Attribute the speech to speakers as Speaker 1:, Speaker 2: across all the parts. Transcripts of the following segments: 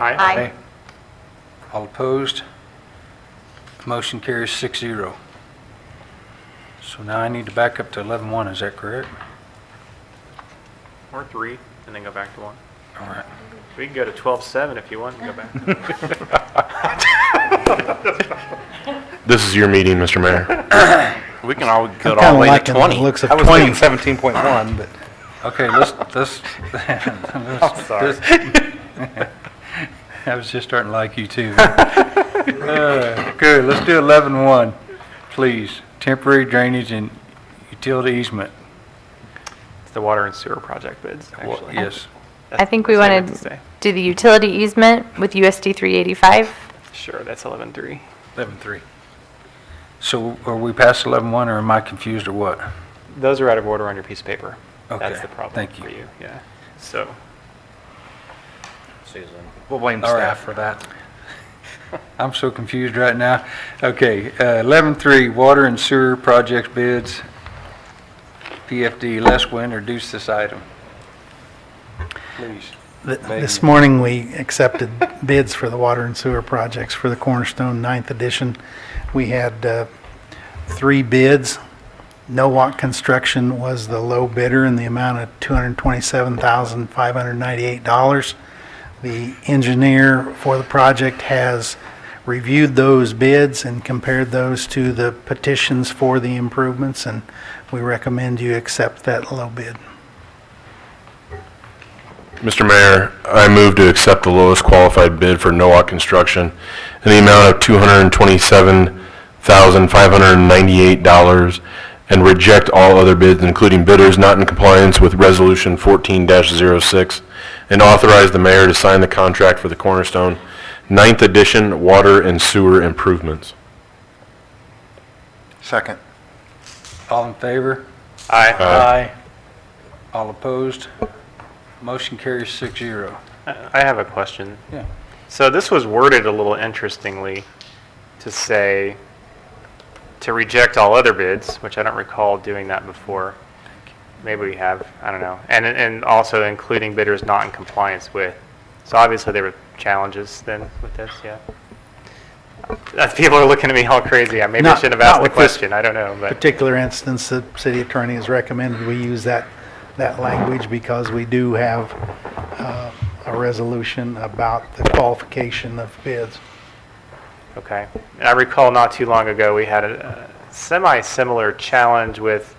Speaker 1: Aye.
Speaker 2: Aye.
Speaker 3: All opposed? Motion carries six zero. So now I need to back up to 11-1, is that correct?
Speaker 1: Or three, and then go back to one.
Speaker 3: All right.
Speaker 1: We can go to twelve seven if you want and go back.
Speaker 4: This is your meeting, Mr. Mayor.
Speaker 5: We can all go
Speaker 6: kinda
Speaker 5: all the way to
Speaker 6: liking the
Speaker 5: 20.
Speaker 6: looks of
Speaker 5: I was
Speaker 6: 20.
Speaker 5: thinking 17.1, but
Speaker 3: Okay, let's, let's. I'm
Speaker 5: sorry.
Speaker 3: I was just starting to like you too. Uh, Good, let's do 11-1, please. Temporary drainage and utility easement.
Speaker 1: It's the water and sewer project bids,
Speaker 3: Well,
Speaker 1: actually.
Speaker 3: Yes,
Speaker 1: That's
Speaker 2: I think we
Speaker 1: the same
Speaker 2: want
Speaker 1: as
Speaker 2: to
Speaker 1: today.
Speaker 2: do the utility easement with USD 385.
Speaker 1: Sure, that's eleven three.
Speaker 3: 11-3. So are we past 11-1 or am I confused or what?
Speaker 1: Those are out of order on your piece of paper.
Speaker 3: Okay,
Speaker 1: That's the problem
Speaker 3: thank you.
Speaker 1: for you, yeah. So,
Speaker 5: we'll blame
Speaker 3: All right.
Speaker 5: staff for that.
Speaker 3: I'm so confused right now. Okay, uh, 11-3, water and sewer project bids. PFD, Les will introduce this item. Please.
Speaker 6: Th- This morning, we accepted bids for the water and sewer projects for the Cornerstone Ninth Edition. We had uh, three bids. Nowak Construction was the low bidder in the amount of $227,598. The engineer for the project has reviewed those bids and compared those to the petitions for the improvements, and we recommend you accept that low bid.
Speaker 4: Mr. Mayor, I move to accept the lowest qualified bid for Noah Construction in the amount of $227,598 and reject all other bids, including bidders not in compliance with Resolution 14-06, and authorize the mayor to sign the contract for the Cornerstone Ninth Edition Water and Sewer Improvements.
Speaker 5: Second.
Speaker 3: All in favor?
Speaker 1: I,
Speaker 3: Aye. All opposed? Motion carries six zero.
Speaker 1: I have a question.
Speaker 3: Yeah.
Speaker 1: So this was worded a little interestingly to say, to reject all other bids, which I don't recall doing that before. Maybe we have, I don't know. And, and also including bidders not in compliance with. So obviously there were challenges then with this, yeah. Uh, People are looking at me all crazy. I Maybe I
Speaker 6: Not-
Speaker 1: shouldn't have
Speaker 6: not
Speaker 1: asked the
Speaker 6: with this
Speaker 1: question. I don't know, but
Speaker 6: particular instance, the city attorney has recommended we use that, that language because we do have uh, a resolution about the qualification of bids.
Speaker 1: okay. And I recall not too long ago, we had a uh, semi-similar challenge with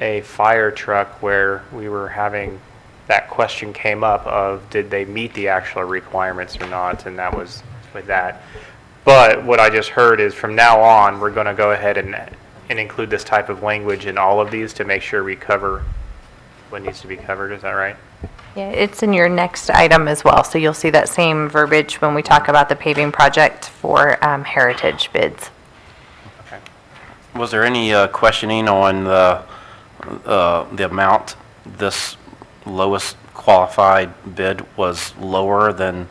Speaker 1: a fire truck where we were having, that question came up of, did they meet the actual requirements or not? And that was with that. But what I just heard is from now on, we're going to go ahead and, and include this type of language in all of these to make sure we cover what needs to be covered. Is that right?
Speaker 2: Yeah, it's in your next item as well, so you'll see that same verbiage when we talk about the paving project for um, heritage bids.
Speaker 5: Was there any uh, questioning on the, uh, the amount this lowest qualified bid was lower than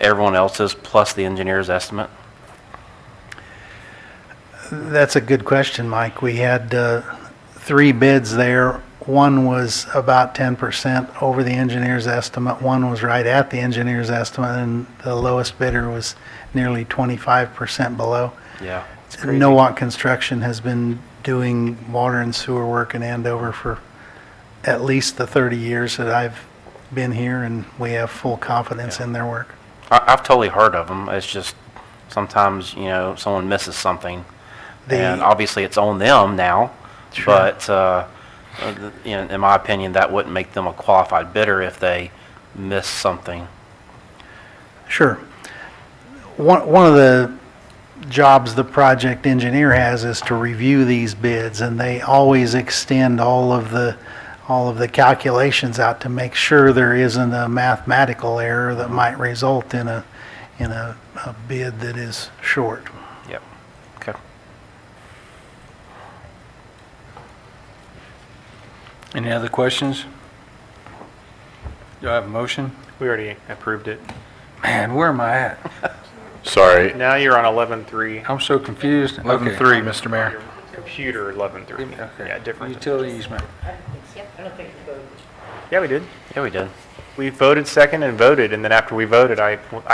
Speaker 5: everyone else's plus the engineer's estimate?
Speaker 6: That's a good question, Mike. We had uh, three bids there. One was about 10% over the engineer's estimate, one was right at the engineer's estimate, and the lowest bidder was nearly 25% below.
Speaker 5: Yeah.
Speaker 6: Noah Construction has been doing water and sewer work in Andover for at least the 30 years that I've been here, and we have full confidence in their work.
Speaker 5: I, I've totally heard of them. It's just sometimes, you know, someone misses something.
Speaker 6: The-
Speaker 5: and obviously, it's on them now. But, uh, uh, th- you know, in my opinion, that wouldn't make them a qualified bidder if they miss something.
Speaker 6: Sure. One, one of the jobs the project engineer has is to review these bids, and they always extend all of the, all of the calculations out to make sure there isn't a mathematical error that might result in a, in a, a bid that is short.
Speaker 5: Yep. Okay.
Speaker 3: Any other questions? Do I have a motion?
Speaker 1: We already approved it.
Speaker 3: Man, where am I at?
Speaker 4: Sorry,
Speaker 1: Now you're on eleven three,
Speaker 3: I'm so confused. Okay.
Speaker 5: Mr. Mayor.
Speaker 1: computer eleven three.
Speaker 3: Okay.
Speaker 1: Yeah, different.
Speaker 3: Utility easement.
Speaker 1: Yeah, we did.
Speaker 5: Yeah, we did.
Speaker 1: We voted second and voted, and then after we voted, I, I